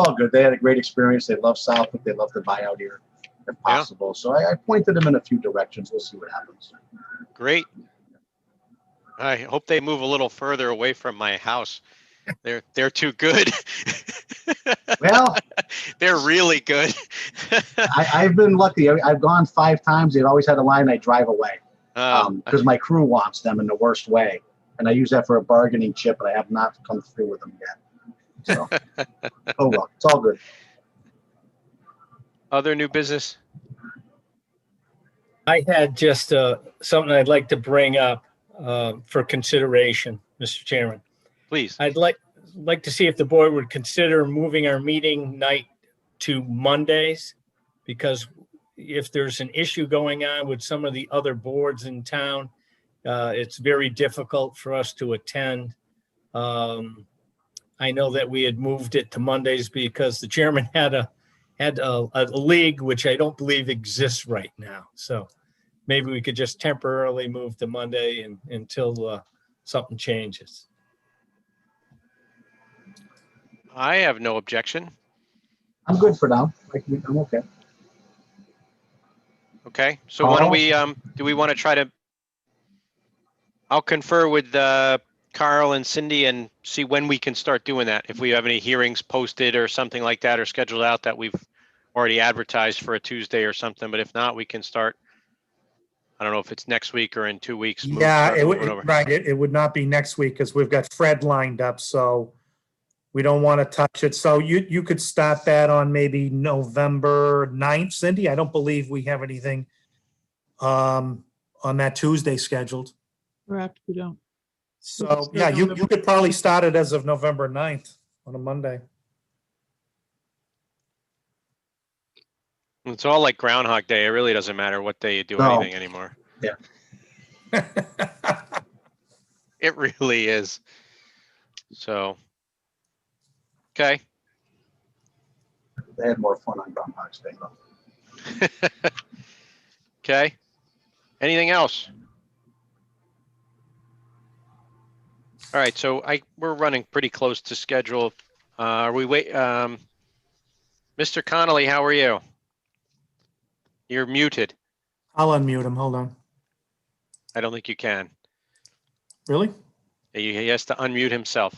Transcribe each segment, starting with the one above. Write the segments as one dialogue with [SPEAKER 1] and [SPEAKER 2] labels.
[SPEAKER 1] all good. They had a great experience. They love Southwick. They love to buy out here if
[SPEAKER 2] Yeah.
[SPEAKER 1] possible. So I, I pointed them in a few directions. We'll see what happens.
[SPEAKER 2] Great. I hope they move a little further away from my house. They're they're too good.
[SPEAKER 1] Well,
[SPEAKER 2] they're really good.
[SPEAKER 1] I, I've been lucky. I, I've gone five times. They've always had a line I drive away because
[SPEAKER 2] um,
[SPEAKER 1] my crew wants them in the worst way. And I use that for a bargaining chip, and I have not come through with them yet. So, oh well, it's all good.
[SPEAKER 2] other new business.
[SPEAKER 3] I had just uh, something I'd like to bring up uh, for consideration, Mr. Chairman.
[SPEAKER 2] Please.
[SPEAKER 3] I'd like, like to see if the board would consider moving our meeting night to Mondays. Because if there's an issue going on with some of the other boards in town, uh, it's very difficult for us to attend. Um, I know that we had moved it to Mondays because the chairman had a, had a, a league which I don't believe exists right now. So maybe we could just temporarily move to Monday and, until, uh, something changes.
[SPEAKER 2] I have no objection.
[SPEAKER 1] I'm good for now. I can, I'm okay.
[SPEAKER 2] Okay, so why don't
[SPEAKER 1] Oh.
[SPEAKER 2] we, um, do we want to try to? I'll confer with, uh, Carl and Cindy and see when we can start doing that. If we have any hearings posted or something like that or scheduled out that we've already advertised for a Tuesday or something, but if not, we can start. I don't know if it's next week or in two weeks. move-
[SPEAKER 4] Yeah,
[SPEAKER 2] start
[SPEAKER 4] it would,
[SPEAKER 2] moving over.
[SPEAKER 4] right, it, it would not be next week because we've got Fred lined up, so we don't want to touch it. So you, you could start that on maybe November 9th, Cindy. I don't believe we have anything um, on that Tuesday scheduled.
[SPEAKER 5] Perhaps we don't.
[SPEAKER 4] So, yeah, you, you could probably start it as of November 9th on a Monday.
[SPEAKER 2] It's all like Groundhog Day. It really doesn't matter what day you do
[SPEAKER 1] No.
[SPEAKER 2] anything anymore. It really is. So. Okay,
[SPEAKER 1] They had more fun on Groundhog's Day. though.
[SPEAKER 2] okay. Anything else? All right, so I, we're running pretty close to schedule. Uh, Are we wait, um, Mr. Connolly, how are you? You're muted.
[SPEAKER 4] I'll unmute him. Hold on.
[SPEAKER 2] I don't think you can.
[SPEAKER 4] Really?
[SPEAKER 2] He he has to unmute himself.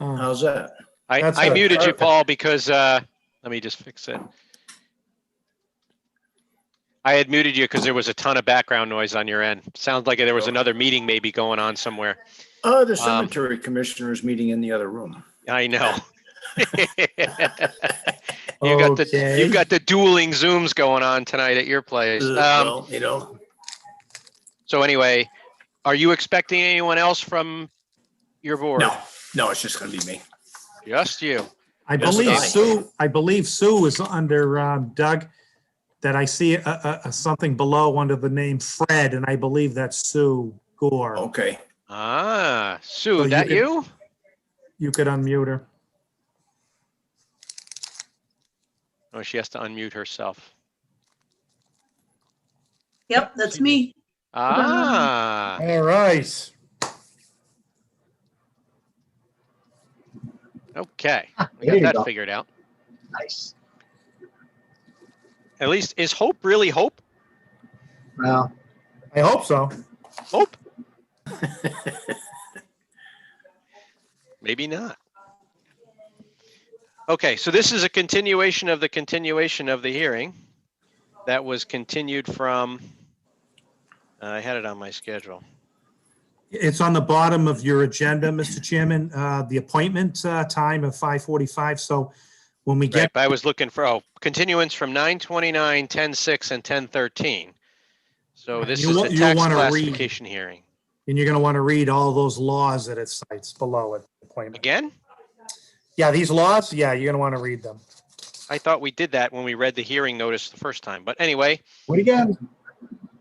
[SPEAKER 4] Oh,
[SPEAKER 6] How's that?
[SPEAKER 2] I,
[SPEAKER 4] That's
[SPEAKER 2] I
[SPEAKER 4] a-
[SPEAKER 2] muted you,
[SPEAKER 4] perfect.
[SPEAKER 2] Paul, because, uh, let me just fix it. I had muted you because there was a ton of background noise on your end. Sounds like there was another meeting maybe going on somewhere.
[SPEAKER 6] Oh, the
[SPEAKER 2] Um,
[SPEAKER 6] cemetery commissioners meeting in the other room.
[SPEAKER 2] I know. You got the,
[SPEAKER 4] Okay.
[SPEAKER 2] you got the dueling Zooms going on tonight at your place.
[SPEAKER 6] Ugh,
[SPEAKER 2] Um,
[SPEAKER 6] well, You know,
[SPEAKER 2] so anyway, are you expecting anyone else from your board?
[SPEAKER 6] no, no, it's just gonna be me.
[SPEAKER 2] Just you.
[SPEAKER 4] I
[SPEAKER 6] Yes,
[SPEAKER 4] believe
[SPEAKER 6] I-
[SPEAKER 4] Sue, I believe Sue is under um, Doug, that I see a, a, a something below under the name Fred, and I believe that's Sue
[SPEAKER 2] Oh.
[SPEAKER 4] Gore.
[SPEAKER 6] Okay,
[SPEAKER 2] Ah,
[SPEAKER 4] So
[SPEAKER 2] Sue,
[SPEAKER 4] you
[SPEAKER 2] that
[SPEAKER 4] can-
[SPEAKER 2] you?
[SPEAKER 4] You could unmute her.
[SPEAKER 2] Oh, she has to unmute herself.
[SPEAKER 7] Yep, that's me.
[SPEAKER 2] Ah.
[SPEAKER 4] All right.
[SPEAKER 2] Okay,
[SPEAKER 1] There
[SPEAKER 2] we got
[SPEAKER 1] you
[SPEAKER 2] that
[SPEAKER 1] go.
[SPEAKER 2] figured out.
[SPEAKER 1] Nice.
[SPEAKER 2] At least, is Hope really Hope?
[SPEAKER 1] Well,
[SPEAKER 4] I hope so.
[SPEAKER 2] Hope? Maybe not. Okay, so this is a continuation of the continuation of the hearing that was continued from, uh, I had it on my schedule.
[SPEAKER 4] It's on the bottom of your agenda, Mr. Chairman, uh, the appointment uh, time of 5:45. So when we
[SPEAKER 2] Right,
[SPEAKER 4] get,
[SPEAKER 2] but I was looking for, oh, continuance from 9:29, 10:06, and 10:13. So
[SPEAKER 4] Right,
[SPEAKER 2] this
[SPEAKER 4] you
[SPEAKER 2] is
[SPEAKER 4] wa-
[SPEAKER 2] the
[SPEAKER 4] you
[SPEAKER 2] tax
[SPEAKER 4] wanna read-
[SPEAKER 2] classification hearing.
[SPEAKER 4] and you're going to want to read all those laws that it cites below it. appointment.
[SPEAKER 2] Again?
[SPEAKER 4] Yeah, these laws, yeah, you're going to want to read them.
[SPEAKER 2] I thought we did that when we read the hearing notice the first time, but anyway,
[SPEAKER 1] what again?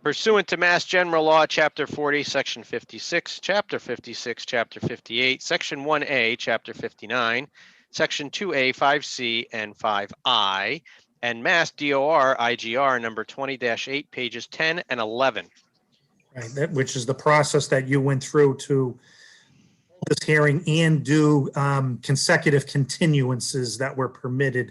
[SPEAKER 2] pursuant to Mass General Law, Chapter 40, Section 56, Chapter 56, Chapter 58, Section 1A, Chapter 59, Section 2A, 5C, and 5I, and Mass DOR IGR number 20-8, pages 10 and 11.
[SPEAKER 4] Right, that, which is the process that you went through to this hearing and do um, consecutive continuances that were permitted